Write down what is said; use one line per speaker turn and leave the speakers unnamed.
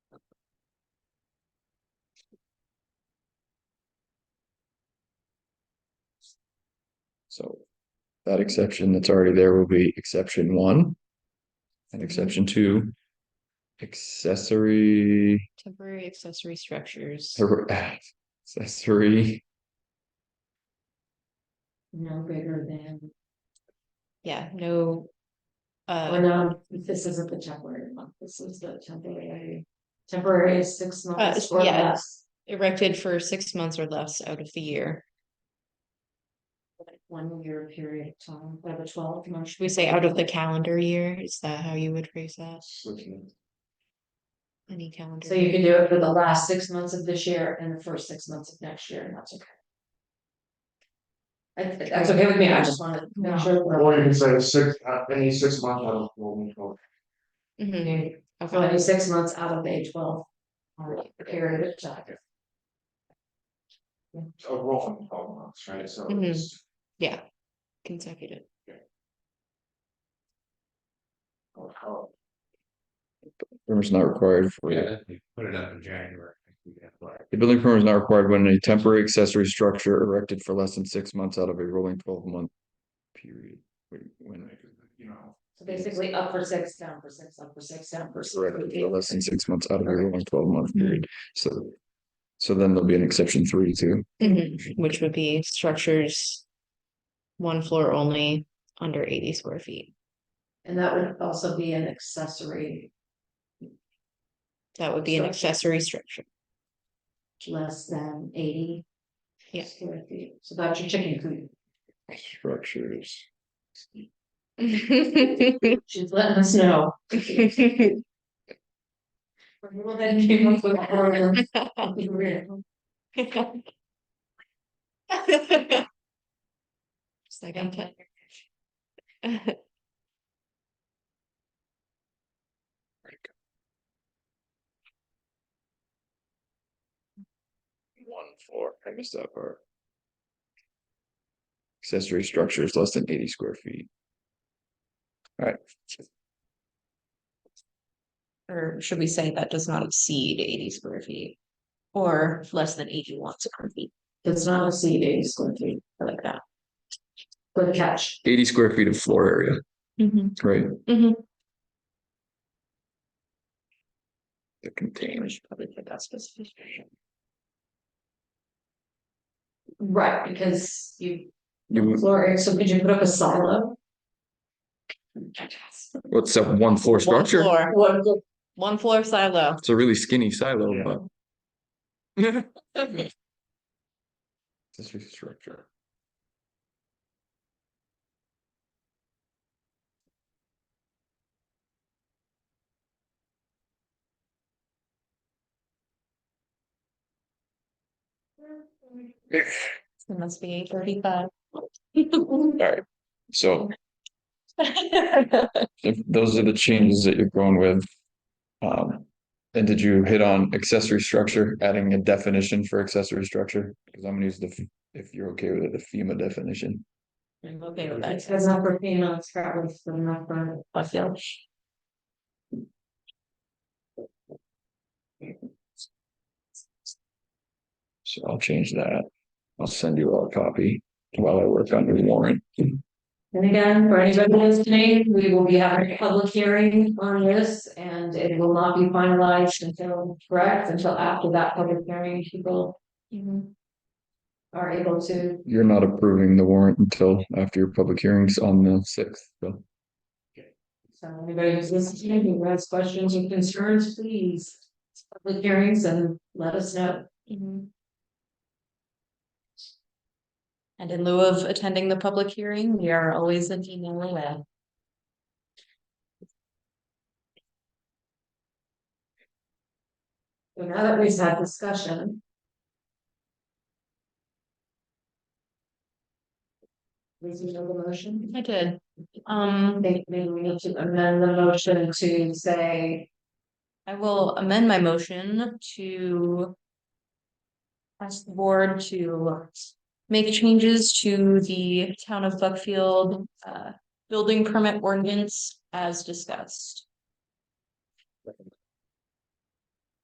So that exception that's already there will be exception one. And exception two. Accessory,
Temporary accessory structures.
accessory,
no greater than,
Yeah, no.
oh,
Uh,
no, this isn't the temporary one, this is the temporary. Temporary is six months
Uh,
or
yeah.
less,
erected for six months or less out of the year.
like one year period of time, by the twelve month.
Should we say out of the calendar year? Is that how you would phrase that? Any calendar?
So you
year.
can do it for the last six months of this year and the first six months of next year, and that's okay. I- That's okay with me, I just wanna make sure.
Or you
we're-
can say six, uh, any six month out of rolling code.
Mhm,
Okay,
okay.
Mm-hmm. So any six months out of a twelve. month Period of time.
a rolling twelve months, right, so.
Mhm.
it's-
Yeah, consecutive.
oh, oh,
permit is not required for.
Put it up in January.
The building permit is not required when a temporary accessory structure erected for less than six months out of a rolling twelve month period. Wait, When
You know,
So basically up for six, down for six, up for six, down for six.
erected for less than six months out of a rolling twelve month period, so. So then there'll be an exception three too.
Mhm, Which would be structures. One floor only, under eighty square feet.
And that would also be an accessory
That would be an
Structure.
accessory structure.
less than eighty.
Yeah.
square feet. So that's your chicken coop.
Structures.
She's letting us know. Well, then came up with that.
It's like, I'm tired.
One floor, I missed that part. Accessory structure is less than eighty square feet. Alright,
Or should we say that does not exceed eighty square feet? Or less than eighty-one square feet,
It's not a C eighty square feet.
I like that.
Good catch.
eighty square feet of floor area, right?
Mhm.
That contains.
Probably put that specification.
Right, because you,
You, would-
floor area, so could you put up a silo?
what's up, one floor
One
structure?
floor,
What,
one floor silo.
It's a really skinny silo,
Yeah.
but. Accessory structure.
It must be thirty-five.
Alright, so if those are the changes that you're going with. Um, and did you hit on accessory structure, adding a definition for accessory structure? Because I'm gonna use the, f- if you're okay with it, the FEMA definition.
I'm okay with that.
It's got enough for female, it's got enough for enough for
I feel.
So I'll change that. I'll send you all a copy while I work on the warrant.
And again, for anybody listening, we will be having a public hearing on this and it will not be finalized until, correct, until after that public hearing, people are able to.
You're not approving the warrant until after your public hearings on the sixth, so.
So anybody who's listening, who has questions or concerns, please. it's Public hearings and let us know.
Mm-hmm. And in lieu of attending the public hearing, we are always an email away.
So now that we've had discussion. Reasonable motion.
I did. Um,
think maybe we need to amend the motion to say,
I will amend my motion to ask the board to make changes to the town of Buckfield uh building permit ordinance as discussed.